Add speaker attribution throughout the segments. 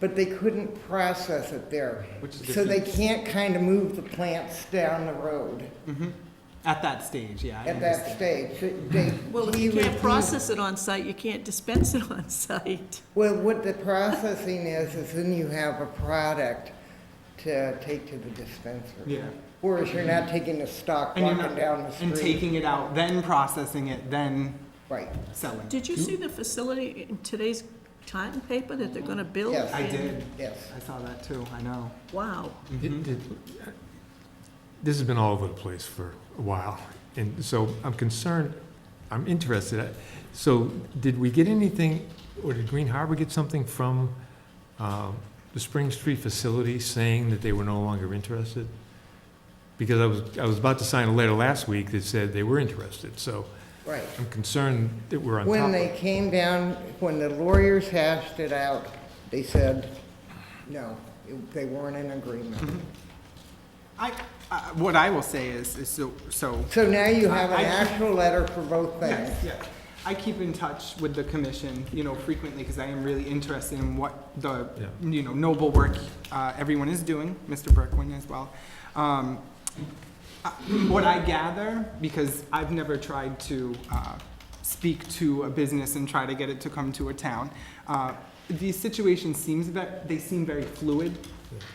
Speaker 1: but they couldn't process it there.
Speaker 2: Which is
Speaker 1: So they
Speaker 2: different.
Speaker 1: can't kind of move the plants down the road
Speaker 2: Mm-hmm. At that stage, yeah. I
Speaker 1: at that
Speaker 2: understand.
Speaker 1: stage. They-
Speaker 3: Well, if
Speaker 1: he
Speaker 3: you can't
Speaker 1: refused-
Speaker 3: process it on site, you can't dispense it on site.
Speaker 1: Well, what the processing is, is then you have a product to take to the dispenser.
Speaker 2: Yeah.
Speaker 1: Whereas you're not taking a stock,
Speaker 2: And you're
Speaker 1: walking
Speaker 2: not,
Speaker 1: down the
Speaker 2: and
Speaker 1: street.
Speaker 2: taking it out, then processing it, then
Speaker 1: Right,
Speaker 2: selling. it.
Speaker 3: Did you see the facility in today's Titan paper that they're gonna build?
Speaker 1: Yes.
Speaker 2: I did.
Speaker 1: yes.
Speaker 2: I saw that too. I know. Mm-hmm.
Speaker 3: Wow.
Speaker 4: It- it- This has been all over the place for a while, and so I'm concerned, I'm interested. So did we get anything, or did Green Harbor get something from um, the Spring Street facility saying that they were no longer interested? Because I was, I was about to sign a letter last week that said they were interested, so
Speaker 1: Right.
Speaker 4: I'm concerned that we're on top
Speaker 1: When
Speaker 4: of
Speaker 1: they
Speaker 4: it.
Speaker 1: came down, when the lawyers hashed it out, they said, no, it- they weren't in agreement.
Speaker 2: I, I what I will say is, is so so.
Speaker 1: So now you
Speaker 2: I-
Speaker 1: have an
Speaker 2: I-
Speaker 1: actual letter for both things.
Speaker 2: Yes, yes. I keep in touch with the commission, you know, frequently because I am really interested in what the,
Speaker 4: Yeah.
Speaker 2: you know, noble work uh, everyone is doing, Mr. Berkwin as well. Um, uh, What I gather, because I've never tried to uh, speak to a business and try to get it to come to a town, uh, the situation seems, ve- they seem very fluid.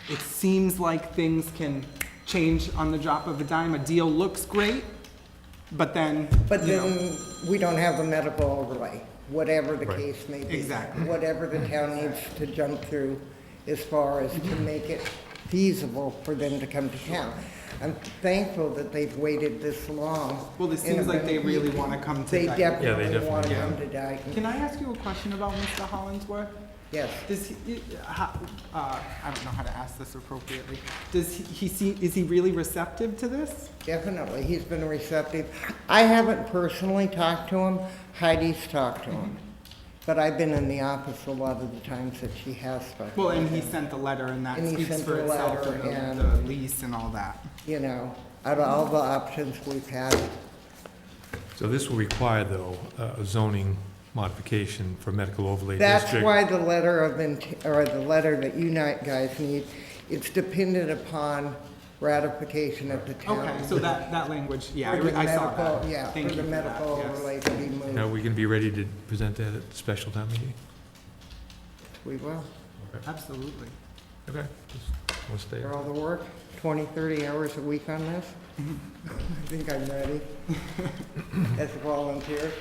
Speaker 2: It seems like things can change on the drop of a dime. A deal looks great, but then,
Speaker 1: But
Speaker 2: you know.
Speaker 1: then, we don't have the medical overlay, whatever the
Speaker 4: Right.
Speaker 1: case may be.
Speaker 2: Exactly.
Speaker 1: Whatever the town needs to jump through as far as to
Speaker 2: Mm-hmm.
Speaker 1: make it feasible for them to come to town. I'm thankful that they've waited this long.
Speaker 2: Well, this seems like they really want to come to
Speaker 1: They
Speaker 2: Dyton.
Speaker 1: definitely
Speaker 4: definitely
Speaker 1: want
Speaker 4: do.
Speaker 1: to come to Dayton,
Speaker 2: Can I ask you a question about Mr. Hollingsworth?
Speaker 1: yes.
Speaker 2: Does he, i- how, uh, I don't know how to ask this appropriately. Does he, he see, is he really receptive to this?
Speaker 1: Definitely, he's been receptive. I haven't personally talked to him, Heidi's talked to him. But I've been in the office a lot of the times that she has spoken.
Speaker 2: Well, and he sent the letter and that
Speaker 1: And he
Speaker 2: speaks
Speaker 1: sent
Speaker 2: for
Speaker 1: the
Speaker 2: itself
Speaker 1: letter
Speaker 2: and
Speaker 1: and-
Speaker 2: the- the lease and all that.
Speaker 1: You know, out of all the options we've had,
Speaker 4: So this will require, though, a zoning modification for medical overlay district.
Speaker 1: That's why the letter of, int- or the letter that you ni- guys need, it's dependent upon ratification of the town.
Speaker 2: Okay, so that, that language, yeah, I
Speaker 1: For
Speaker 2: re-
Speaker 1: the
Speaker 2: I saw
Speaker 1: medical-
Speaker 2: that.
Speaker 1: Yeah,
Speaker 2: Thank
Speaker 1: for the
Speaker 2: you for that,
Speaker 1: medical
Speaker 2: yes.
Speaker 1: overlay to be
Speaker 4: Now,
Speaker 1: moved,
Speaker 4: we can be ready to present that at the special town meeting?
Speaker 1: we will,
Speaker 2: Absolutely.
Speaker 4: Okay. Just wanna stay
Speaker 1: for all the work, 20, 30 hours a week on this.
Speaker 2: Mm-hmm.
Speaker 1: I think I'm ready as a volunteer.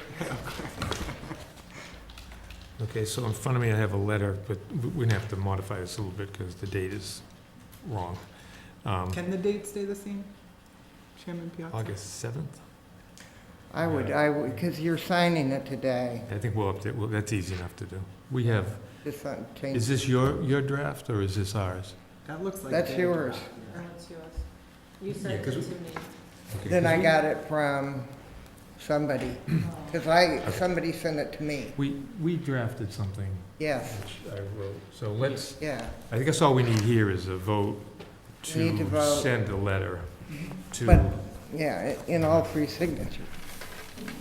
Speaker 4: Okay, so in front of me, I have a letter, but we- we're gonna have to modify this a little bit because the date is wrong. Um,
Speaker 2: Can the date stay the same? Chairman Piazza?
Speaker 4: August 7th?
Speaker 1: I would, I would, because you're signing it today,
Speaker 4: I think we'll update, well, that's easy enough to do. We have,
Speaker 1: just not
Speaker 4: is
Speaker 1: change.
Speaker 4: this your, your draft or is this ours?
Speaker 2: That looks like.
Speaker 1: That's
Speaker 2: it.
Speaker 1: yours.
Speaker 5: That's yours. You
Speaker 4: Yeah,
Speaker 5: sent it
Speaker 4: 'cause
Speaker 5: to
Speaker 4: we-
Speaker 5: me.
Speaker 4: Okay,
Speaker 1: Then
Speaker 4: 'cause
Speaker 1: I
Speaker 4: we-
Speaker 1: got it from somebody, because I, somebody sent it to me,
Speaker 4: We, we drafted something,
Speaker 1: yes,
Speaker 4: which I wrote, so let's,
Speaker 1: yeah.
Speaker 4: I guess all we need here is a vote
Speaker 1: Need to
Speaker 4: to
Speaker 1: vote. Mm-hmm.
Speaker 4: send a letter
Speaker 1: But-
Speaker 4: to,
Speaker 1: Yeah, i- in all three signatures.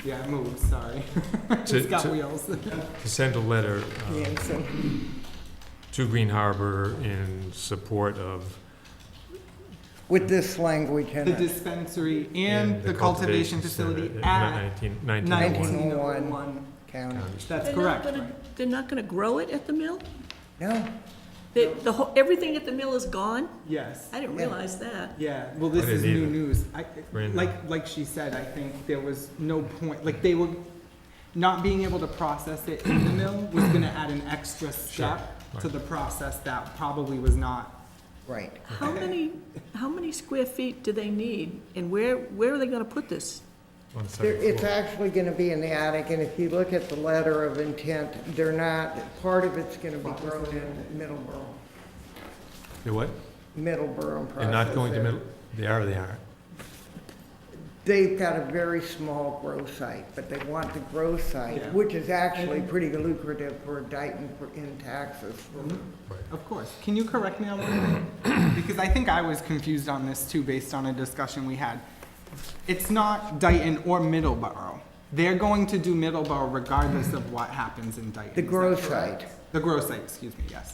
Speaker 2: Yeah, I moved, sorry. It's
Speaker 4: To-
Speaker 2: got
Speaker 4: to-
Speaker 2: wheels.
Speaker 4: to send a letter um,
Speaker 1: Yeah, so-
Speaker 4: to Green Harbor in support of
Speaker 1: With this language in
Speaker 2: The
Speaker 1: it.
Speaker 2: dispensary and the cultivation facility at
Speaker 4: Nineteen,
Speaker 1: Nineteen.
Speaker 4: nineteen
Speaker 2: nineteen oh one.
Speaker 1: County.
Speaker 4: oh one.
Speaker 2: That's
Speaker 3: They're not
Speaker 2: correct,
Speaker 3: gonna-
Speaker 2: right?
Speaker 3: They're not gonna grow it at the mill?
Speaker 1: No,
Speaker 3: They, the whole, everything at the mill is gone?
Speaker 2: Yes,
Speaker 3: I didn't
Speaker 1: Yeah.
Speaker 3: realize that.
Speaker 2: yeah, well, this
Speaker 4: I didn't
Speaker 2: is new
Speaker 4: either.
Speaker 2: news. I,
Speaker 4: Random.
Speaker 2: like, like she said, I think there was no point, like, they were, not being able to process it in the mill was gonna add an extra step to
Speaker 4: right.
Speaker 2: the process that probably was not.
Speaker 1: right.
Speaker 3: How many, how many square feet do they need, and where, where are they gonna put this?
Speaker 4: On the second
Speaker 1: There- It's
Speaker 4: floor.
Speaker 1: actually going to be in the attic, and if you look at the letter of intent, they're not, part of it's going to be grown in Middleborough,
Speaker 4: They're what?
Speaker 1: Middleborough and
Speaker 4: They're not going to
Speaker 1: processed
Speaker 4: middle, they are, they aren't.
Speaker 1: there. They've got a very small grow site, but they want the grow
Speaker 2: Yeah.
Speaker 1: site, which is actually pretty lucrative for Dayton for- in taxes.
Speaker 2: Of course. Can you correct me on one? Because I think I was confused on this too, based on a discussion we had. It's not Dayton or Middleborough. They're going to do Middleborough regardless of what happens in
Speaker 1: The
Speaker 2: Dayton. is that
Speaker 1: grow
Speaker 2: correct?
Speaker 1: site.
Speaker 2: The grow site, excuse me, yes.